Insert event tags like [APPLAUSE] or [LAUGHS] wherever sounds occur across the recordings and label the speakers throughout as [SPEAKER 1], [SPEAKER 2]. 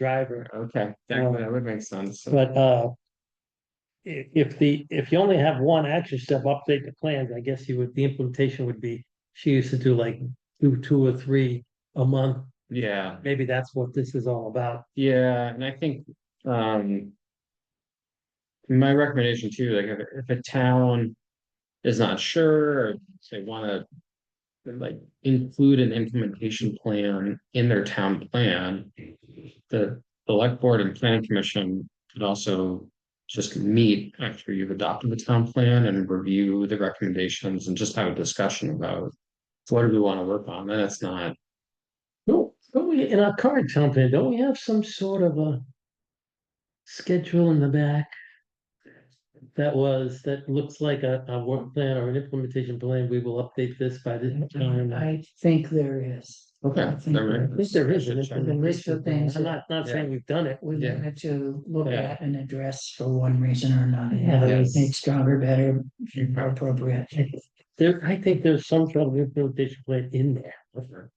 [SPEAKER 1] driver,
[SPEAKER 2] Okay, that would- that would make sense.
[SPEAKER 1] but, uh. If, if the, if you only have one action step, update the plans, I guess you would, the implementation would be, she used to do like, do two or three a month.
[SPEAKER 2] Yeah,
[SPEAKER 1] Maybe that's what this is all about.
[SPEAKER 2] yeah, and I think, um. My recommendation too, like if, if a town is not sure, or they wanna. Like include an implementation plan in their town plan. The select board and planning commission could also just meet after you've adopted the town plan and review the recommendations and just have a discussion about. What do we wanna work on? And it's not,
[SPEAKER 1] No, don't we, in our current company, don't we have some sort of a. Schedule in the back? That was, that looks like a, a work plan or an implementation plan, we will update this by this time.
[SPEAKER 3] I think there is.
[SPEAKER 2] okay.
[SPEAKER 3] I think
[SPEAKER 2] there
[SPEAKER 3] there
[SPEAKER 2] may-
[SPEAKER 1] I think there is an
[SPEAKER 2] I should check.
[SPEAKER 3] The list of
[SPEAKER 1] implementation plan.
[SPEAKER 3] things
[SPEAKER 1] I'm
[SPEAKER 3] that-
[SPEAKER 1] not, not
[SPEAKER 2] Yeah.
[SPEAKER 1] saying we've done it,
[SPEAKER 3] We
[SPEAKER 2] Yeah.
[SPEAKER 3] wanted to look
[SPEAKER 2] Yeah.
[SPEAKER 3] at and address for one reason or another,
[SPEAKER 1] Yeah.
[SPEAKER 3] whether
[SPEAKER 2] Yes.
[SPEAKER 3] it's made stronger, better, more appropriate.
[SPEAKER 1] there, I think there's some sort of implementation plan in there.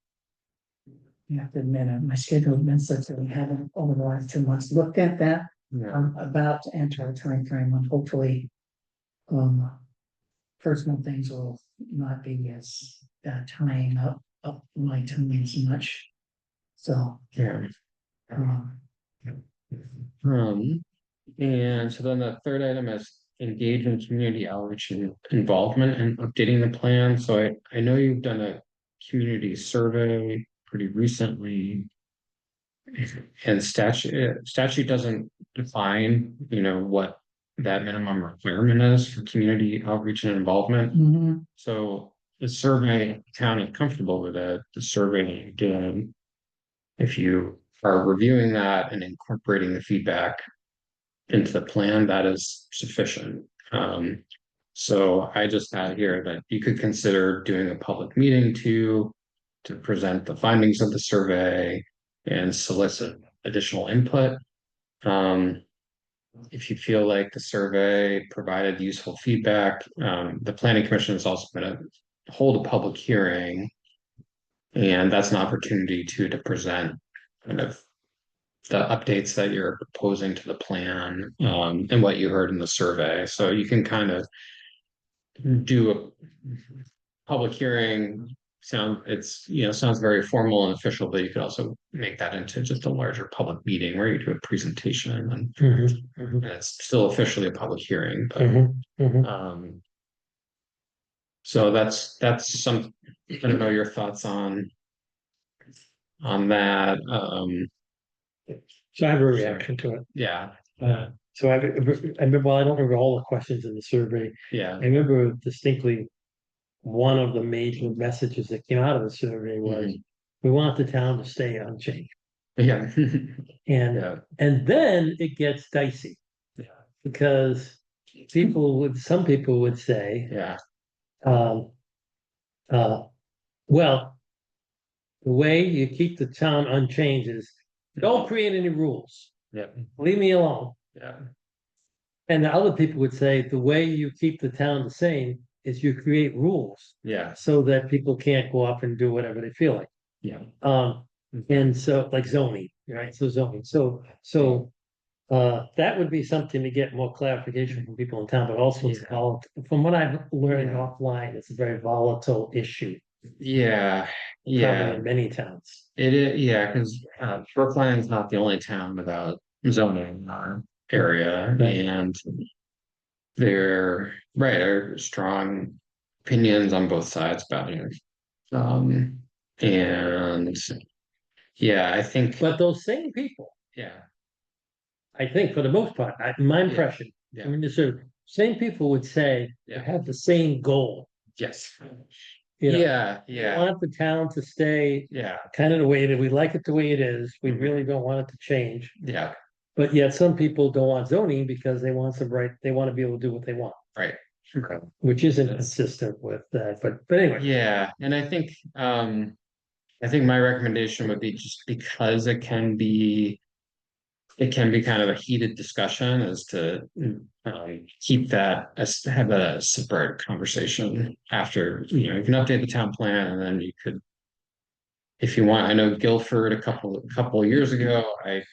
[SPEAKER 3] You have to admit, uh, my schedule admits that we haven't over the last two months looked at that.
[SPEAKER 2] Yeah,
[SPEAKER 3] I'm about to enter a timeframe when hopefully. Um. Personal things will not be as uh, tying up, up my time as much. So,
[SPEAKER 2] yeah.
[SPEAKER 3] um,
[SPEAKER 2] Um, and so then the third item is engage in community outreach and involvement and updating the plan. So I, I know you've done a community survey pretty recently. And statute, statute doesn't define, you know, what that minimum requirement is for community outreach and involvement.
[SPEAKER 3] mhm,
[SPEAKER 2] So the survey, county comfortable with it, the survey you did. If you are reviewing that and incorporating the feedback. Into the plan, that is sufficient. Um, so I just had here that you could consider doing a public meeting to. To present the findings of the survey and solicit additional input. Um, if you feel like the survey provided useful feedback, um, the planning commission is also gonna hold a public hearing. And that's an opportunity to, to present kind of the updates that you're proposing to the plan, um, and what you heard in the survey. So you can kind of do a public hearing, sound, it's, you know, sounds very formal and official, but you could also make that into just a larger public meeting where you do a presentation and
[SPEAKER 1] Mm-hmm.
[SPEAKER 2] and it's still officially a public hearing, but,
[SPEAKER 1] Mm-hmm.
[SPEAKER 2] um. So that's, that's some, I don't know your thoughts on. On that, um,
[SPEAKER 1] So I have a reaction to it.
[SPEAKER 2] yeah,
[SPEAKER 1] Uh, so I, I remember, well, I don't remember all the questions in the survey.
[SPEAKER 2] yeah,
[SPEAKER 1] I remember distinctly. One of the major messages that came out of the survey was, we want the town to stay unchanged.
[SPEAKER 2] [LAUGHS] yeah,
[SPEAKER 1] And,
[SPEAKER 2] yeah,
[SPEAKER 1] and then it gets dicey.
[SPEAKER 2] Yeah.
[SPEAKER 1] Because people would, some people would say,
[SPEAKER 2] yeah,
[SPEAKER 1] Um, uh, well, the way you keep the town unchanged is don't create any rules.
[SPEAKER 2] yeah,
[SPEAKER 1] Leave me alone.
[SPEAKER 2] yeah,
[SPEAKER 1] And the other people would say the way you keep the town the same is you create rules
[SPEAKER 2] yes,
[SPEAKER 1] so that people can't go up and do whatever they feel like.
[SPEAKER 2] yeah,
[SPEAKER 1] Um, and so like zoning, right? So zoning, so, so. Uh, that would be something to get more clarification from people in town, but also it's
[SPEAKER 2] Yeah.
[SPEAKER 1] called, from what I've learned
[SPEAKER 2] Yeah.
[SPEAKER 1] offline, it's a very volatile issue.
[SPEAKER 2] yeah, yeah.
[SPEAKER 1] Probably in many towns.
[SPEAKER 2] It is, yeah, because uh Brookline's not the only town without zoning in our area
[SPEAKER 1] Right.
[SPEAKER 2] and. There, right, are strong opinions on both sides about it. Um, and. Yeah, I think,
[SPEAKER 1] But those same people,
[SPEAKER 2] yeah,
[SPEAKER 1] I think for the most part, I, my impression, I
[SPEAKER 2] yeah.
[SPEAKER 1] mean, the sort of same people would say, they
[SPEAKER 2] Yeah.
[SPEAKER 1] have the same goal.
[SPEAKER 2] yes,
[SPEAKER 1] You know,
[SPEAKER 2] yeah,
[SPEAKER 1] We
[SPEAKER 2] yeah,
[SPEAKER 1] Want the town to stay
[SPEAKER 2] yeah,
[SPEAKER 1] kind of the way that we like it the way it is. We
[SPEAKER 2] Mhm.
[SPEAKER 1] really don't want it to change.
[SPEAKER 2] yeah,
[SPEAKER 1] But yet some people don't want zoning because they want some right, they want to be able to do what they want,
[SPEAKER 2] okay.
[SPEAKER 1] which isn't
[SPEAKER 2] Yes.
[SPEAKER 1] consistent with that. But, but anyway,
[SPEAKER 2] Yeah, and I think, um, I think my recommendation would be just because it can be. It can be kind of a heated discussion is to, um, keep that, as have a separate conversation after, you know, you can update the town plan and then you could. If you want, I know Guilford a couple, a couple of years ago, I